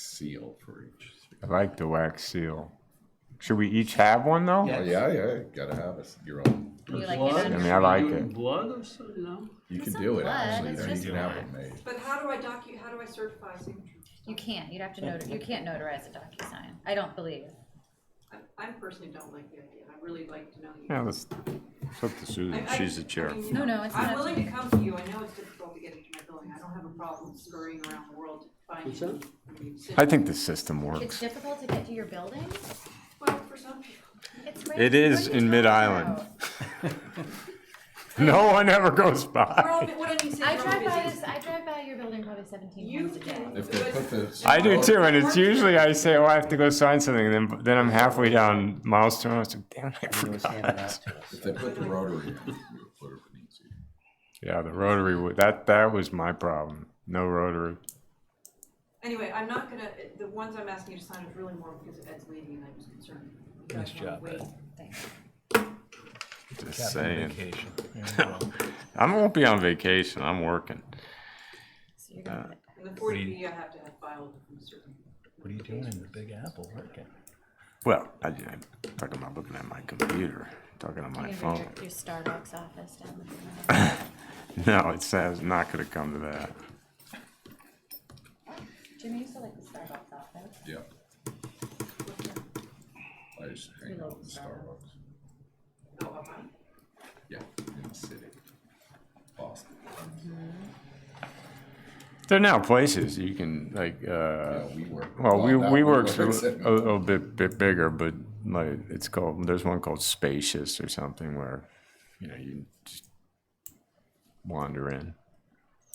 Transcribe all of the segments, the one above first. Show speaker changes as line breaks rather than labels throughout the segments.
seal for each.
I like the wax seal. Should we each have one though?
Oh,
Yes.
yeah, yeah, you gotta have us your own.
You like
Blood?
it
I
on-
mean, I like
Doing
it.
Blood or something? No.
You can
It's
do
not
it
blood,
actually.
it's
though. You
just
can have it made.
But how do I docu, how do I certify signature?
You can't, you'd have to notar, you can't notarize a DocuSign, I don't believe.
I, I personally don't like the idea. I really like to know you.
Yeah, let's.
It's up to Susan.
I- I-
She's the chair.
I mean,
No, no, it's
I'm
not.
willing to come to you. I know it's difficult to get into my building. I don't have a problem scurrying around the world to find
What's
you.
that?
I mean,
I think the system
It's
works.
difficult to get to your building?
Well, for some people.
It's right-
It is
what
in
are you talking
Mid-Island.
about?
No one ever goes
We're
by.
all, what I mean, say
I
we're all
drive by
busy.
this, I drive by your building probably seventeen
You
times a day.
can.
If they
but-
put the.
I do too, and it's usually I say, "Oh, I have to go sign something," and then then I'm halfway down milestone. I was like, "Damn, I forgot."
If they put the rotary in, you'll put it in easy.
Yeah, the rotary. wa- That that was my problem. No rotary.
Anyway, I'm not gonna, the ones I'm asking you to sign is really more because of Ed's leaving and I was concerned. Nice job, Ed.
Just saying. I won't be on vacation. I'm working.
So
Uh,
you're gonna-
And the forty B I have to have filed from a certain.
What are you doing in the Big Apple working?
Well, I, I'm talking about looking at my computer, talking on my
you're gonna
phone.
go to your, your Starbucks office down there.
No, it's, it's not going to come to that.
Jimmy used to like the Starbucks office.
Yeah. I used to hang out with Starbucks.
Oh, up on it?
Yeah, in the city. Boston.
There are now places you can like. Uh,
Yeah, we work.
well, we
that
we works a,
WeWork's
a little bit bit bigger, but like it's called. There's one called Spacious or something where, you know, you just wander in.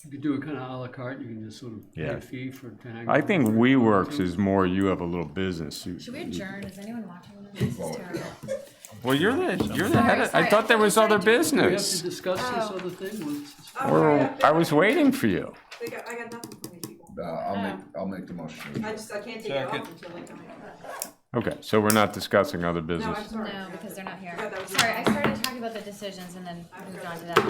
You could do it kind of à la carte. You can just sort of pay
Yeah.
a fee for to hang
I
out.
think WeWorks is more you have a little business. You,
Should we adjourn? Is anyone watching? This is terrible.
well, you're the you're the head. Of,
Sorry,
I thought there
sorry.
was other
We have to
business.
discuss this
Oh.
other thing. once-
Oh, sorry,
Well, I was waiting for you.
They got, I got nothing from these people.
Uh, I'll
Oh.
make, I'll make the motion.
I just, I can't take it off until they come in.
Okay, so we're not discussing other
No, I'm
business.
sorry.
No, because they're not here.
Yeah, that was-
Sorry, I started talking about the decisions and then moved on to that. Uh,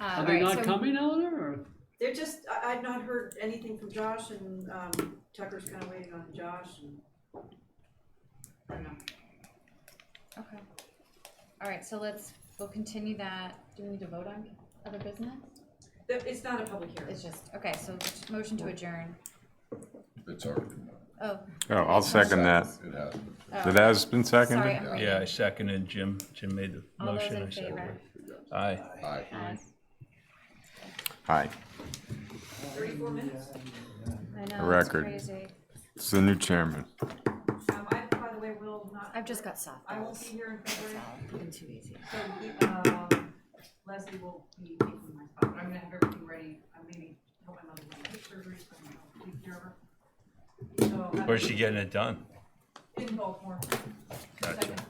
Are
all
they
right,
not
so-
coming, Eleanor? Or
They're just, I, I've not heard anything from Josh and, um, Tucker's kinda waiting on Josh and. I don't know.
Okay. All right, so let's, we'll continue that. Do we need to vote on other business?
That- It's not a public hearing.
It's just, okay, so just motion to adjourn.
It's already been done.
Oh,
Oh, I'll second that.
It has been.
oh,
That has been seconded.
sorry, I'm reading.
Yeah, I seconded Jim. Jim made the
All those
motion.
in
I seconded.
favor?
Aye.
Aye.
Aye.
Hi.
Thirty-four minutes.
I know, it's
Record.
crazy.
It's the new chairman.
Um, I, by the way, will not.
I've just got soft
I won't be
balls.
here in February,
Been too easy.
so, um, Leslie will be taking my spot, but I'm gonna have everything ready, I'm leaving, help my mother with her surgery, so I'm gonna take care of her. So,
Where's she getting it done?
I'm in Baltimore,
Gotcha.
second